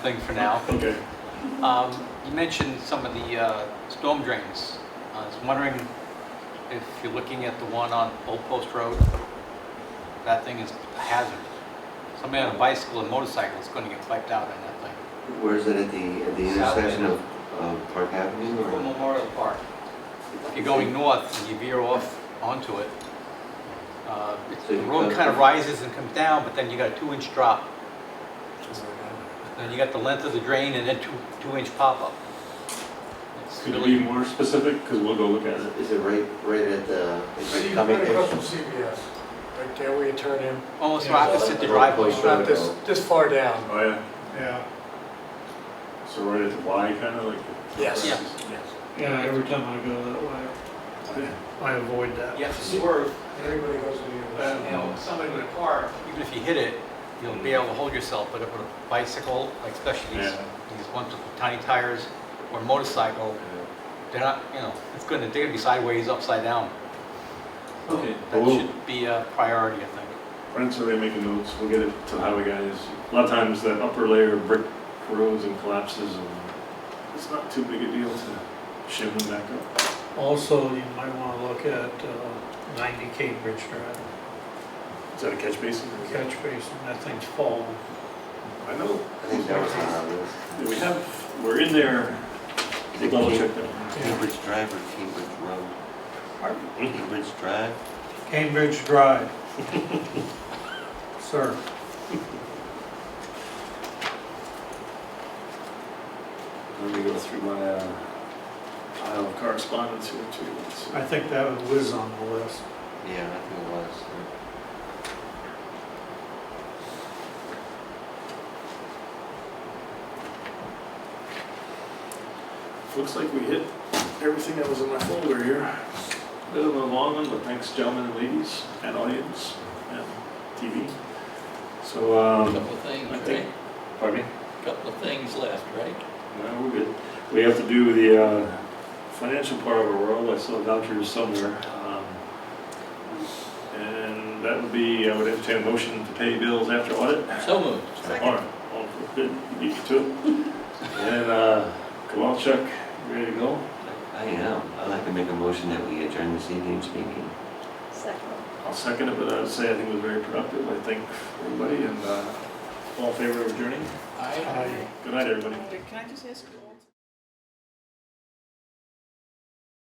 thing for now. Okay. Um, You mentioned some of the uh, storm drains. I was wondering if you're looking at the one on Old Post Road? That thing is a hazard. Somebody on a bicycle and motorcycle is going to get wiped out on that thing. Where is it at the, at the South intersection End. of, of Park Avenue From or? Memorial Park. If you're going north and you veer off onto it, uh, it's- So the you road come- kind of rises and comes down, but then you got a two-inch drop. Then you got the length of the drain and then two, two-inch pop-up. It's Could you really- be more specific? Because we'll go look at it. Is it right, right at the, is See, it right coming? across from CBS, right there where you turn in, Almost Yeah. opposite the driveway. it's not this, this far down. Oh, yeah. Yeah, So right at the Y, kind of like. Yes. Yeah. Yes. yeah, every time I go that way, I avoid that. You have to swerve, Everybody goes to you the, know, somebody with a car, even if you hit it, you'll be able to hold yourself, but with a bicycle, like especially these, Yeah. these ones with tiny tires, or a motorcycle, they're not, you know, it's gonna, they're gonna be sideways, upside down. Okay. That Well, should be a priority, I think. Brent's already making notes. We'll get it to the highway guys. A lot of times that upper layer of brick corrodes and collapses and it's not too big a deal to shim them back up. Also, you might wanna look at uh, ninety Cambridge Drive, Is that a catch basin? catch basin, that thing's falling. I know. I think that was on our list. Yeah, We have, we're in there. We'll double check that. Cambridge Drive or Cambridge Road? Cambridge Drive? Cambridge Drive. Sir, Let me go through my uh, pile of correspondence here too. I think that was Liz on the list. Yeah, I think it was. Looks like we hit everything that was in my folder here. Bit of a long one, but thanks gentlemen and ladies and audience and TV. So, um, Couple of I things, think, right? pardon me? Couple of things left, right? No, we're good. We have to do the uh, financial part of our world. I saw vouchers somewhere. um, And that would be, I would entertain a motion to pay bills after audit. So moved. All right, all good, beat you to it. And, uh, Kowalczyk, you ready to go? I am. I'd like to make a motion that we adjourn this evening's meeting. Second. I'll second it, but I'd say I think it was very productive, I think, for everybody, and uh, all in favor of adjourning? Aye. I- Good night, everybody. Can I just ask